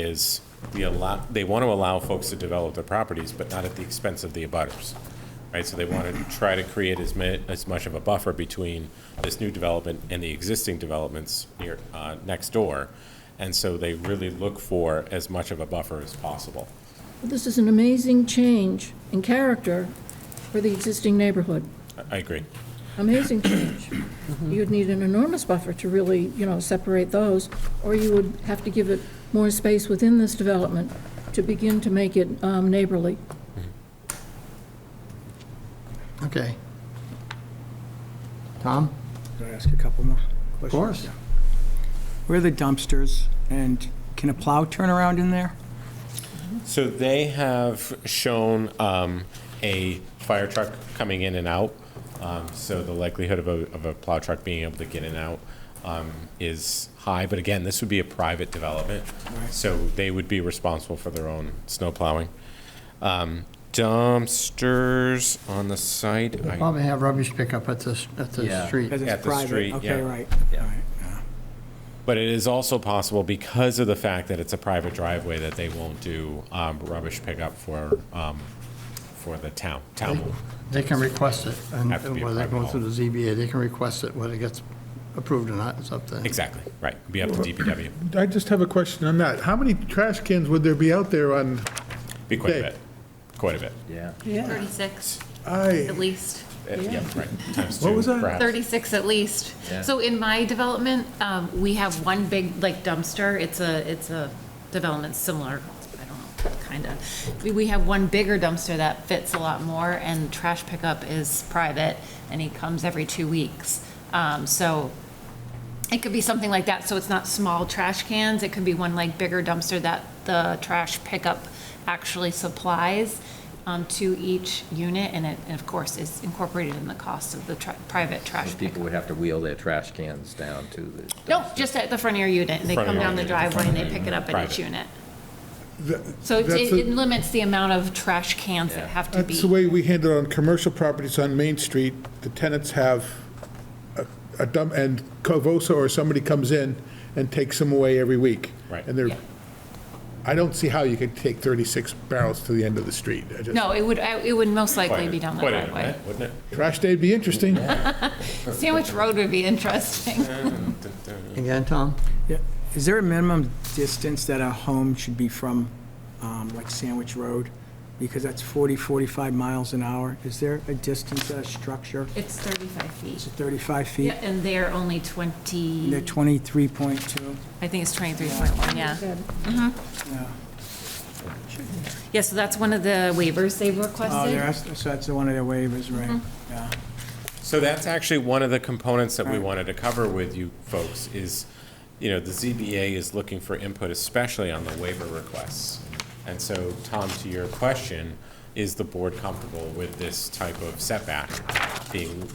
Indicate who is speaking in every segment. Speaker 1: is the allow, they want to allow folks to develop their properties, but not at the expense of the abutters, right? So they want to try to create as ma, as much of a buffer between this new development and the existing developments near, uh, next door. And so they really look for as much of a buffer as possible.
Speaker 2: This is an amazing change in character for the existing neighborhood.
Speaker 1: I- I agree.
Speaker 2: Amazing change. You'd need an enormous buffer to really, you know, separate those, or you would have to give it more space within this development to begin to make it um, neighborly.
Speaker 3: Okay. Tom?
Speaker 4: Can I ask a couple more questions?
Speaker 3: Of course.
Speaker 4: Where are the dumpsters, and can a plow turn around in there?
Speaker 1: So they have shown um, a fire truck coming in and out. Um, So the likelihood of a, of a plow truck being able to get in and out um, is high. But again, this would be a private development, so they would be responsible for their own snow plowing. Um, Dumpsters on the site. I-
Speaker 3: Probably have rubbish pickup at the, at the
Speaker 5: Yeah.
Speaker 3: street.
Speaker 4: Because it's
Speaker 1: At the
Speaker 4: private.
Speaker 1: street,
Speaker 4: Okay,
Speaker 1: yeah.
Speaker 4: right.
Speaker 5: Yeah.
Speaker 4: All right, yeah.
Speaker 1: But it is also possible, because of the fact that it's a private driveway, that they won't do um, rubbish pickup for, um, for the town. Town will
Speaker 3: They can request it, and
Speaker 1: Have to be a
Speaker 3: whether they go
Speaker 1: private
Speaker 3: through the ZBA, they can request it, whether it gets approved or not, it's up to them.
Speaker 1: Exactly, right. Be up to DPW.
Speaker 6: I just have a question on that. How many trash cans would there be out there on,
Speaker 1: Be quite a
Speaker 6: Okay.
Speaker 1: bit, quite a bit.
Speaker 5: Yeah.
Speaker 7: 36
Speaker 6: I,
Speaker 7: at least,
Speaker 1: Uh, Yeah, right. Times
Speaker 6: What
Speaker 1: two,
Speaker 6: was that?
Speaker 1: perhaps.
Speaker 7: 36 at least.
Speaker 5: Yeah.
Speaker 7: So in my development, um, we have one big like dumpster, it's a, it's a development similar, I don't know, kind of. We- We have one bigger dumpster that fits a lot more and trash pickup is private and he comes every two weeks. Um, So it could be something like that, so it's not small trash cans, it could be one like bigger dumpster that the trash pickup actually supplies um, to each unit, and it, and of course, is incorporated in the cost of the tra- private trash
Speaker 5: People
Speaker 7: pickup.
Speaker 5: would have to wheel their trash cans down to the.
Speaker 7: No, just at the front of your unit, and they
Speaker 1: Front of
Speaker 7: come
Speaker 1: your
Speaker 7: down the
Speaker 1: unit, the
Speaker 7: driveway and they
Speaker 1: front of
Speaker 7: pick it
Speaker 1: your
Speaker 7: up at each
Speaker 1: unit.
Speaker 7: unit.
Speaker 6: th-
Speaker 7: So it-
Speaker 6: That's
Speaker 7: it
Speaker 6: a-
Speaker 7: it limits the amount of trash cans
Speaker 5: Yeah.
Speaker 7: that have to be.
Speaker 6: that's the way we handle it on commercial properties on Main Street. The tenants have a- a dump, and Covosa or somebody comes in and takes them away every week.
Speaker 1: Right.
Speaker 6: And they're,
Speaker 7: Yeah.
Speaker 6: I don't see how you could take 36 barrels to the end of the street. I just-
Speaker 7: No, it would, I- it would most likely
Speaker 1: Quite a-
Speaker 7: be down the
Speaker 1: quite a
Speaker 7: driveway.
Speaker 1: bit, Wouldn't
Speaker 6: Trash day'd be interesting.
Speaker 7: Sandwich Road would be interesting.
Speaker 1: it?
Speaker 3: Again, Tom?
Speaker 4: Yeah. Is there a minimum distance that a home should be from, um, like Sandwich Road? Because that's 40, 45 miles an hour. Is there a distance at a structure?
Speaker 7: It's 35 feet.
Speaker 4: Is it 35 feet?
Speaker 7: Yeah, and they're only 20.
Speaker 4: And they're 23.2?
Speaker 7: I think it's 23.1, yeah.
Speaker 2: Said,
Speaker 4: Yeah.
Speaker 7: Yeah, so that's one of the waivers they've
Speaker 4: Oh, they're,
Speaker 7: requested.
Speaker 4: asked- so that's one of their waivers, right? Yeah.
Speaker 1: So that's actually one of the components that we wanted to cover with you folks is, you know, the ZBA is looking for input, especially on the waiver requests. And so, Tom, to your question, is the board comfortable with this type of setback being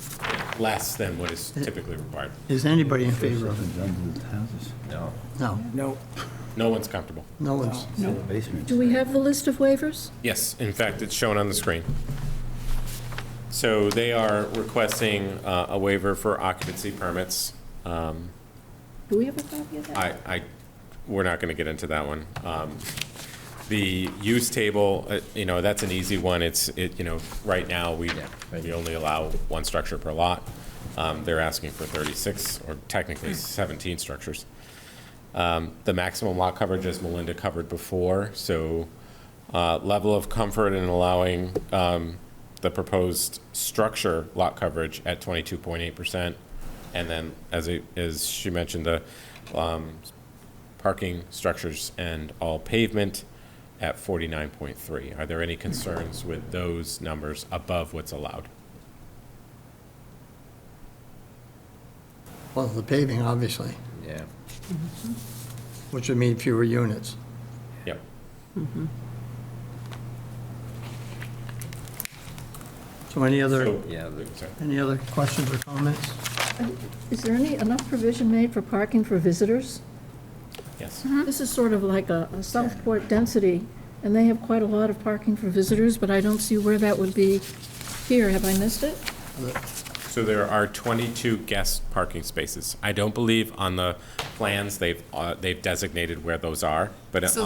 Speaker 1: less than what is typically required?
Speaker 3: Is anybody in favor of it?
Speaker 5: No.
Speaker 3: No,
Speaker 4: No,
Speaker 1: No one's comfortable.
Speaker 3: no one's,
Speaker 2: Do we have the list of waivers?
Speaker 1: Yes, in fact, it's shown on the screen. So they are requesting uh, a waiver for occupancy permits. Um,
Speaker 2: Do we have a copy of that?
Speaker 1: I, I, we're not going to get into that one. Um, The use table, uh, you know, that's an easy one. It's, it, you know, right now, we,
Speaker 5: right.
Speaker 1: we only allow one structure per lot. Um, They're asking for 36, or technically 17 structures. Um, The maximum lot coverage, as Melinda covered before, so uh, level of comfort in allowing um, the proposed structure lot coverage at 22.8%. And then, as it, as she mentioned, the um, parking structures and all pavement at 49.3. Are there any concerns with those numbers above what's allowed?
Speaker 3: well, the paving, obviously,
Speaker 5: Yeah.
Speaker 3: which would mean fewer units.
Speaker 1: Yep.
Speaker 3: So any other,
Speaker 1: So-
Speaker 5: Yeah, the-
Speaker 1: Sorry.
Speaker 3: any other questions or comments?
Speaker 2: Is there any, enough provision made for parking for visitors?
Speaker 1: Yes.
Speaker 2: This is sort of like a a Southport density, and they have quite a lot of parking for visitors, but I don't see where that would be here. Have I missed it?
Speaker 1: So there are 22 guest parking spaces. I don't believe on the plans they've, uh, they've designated where those are, but
Speaker 7: So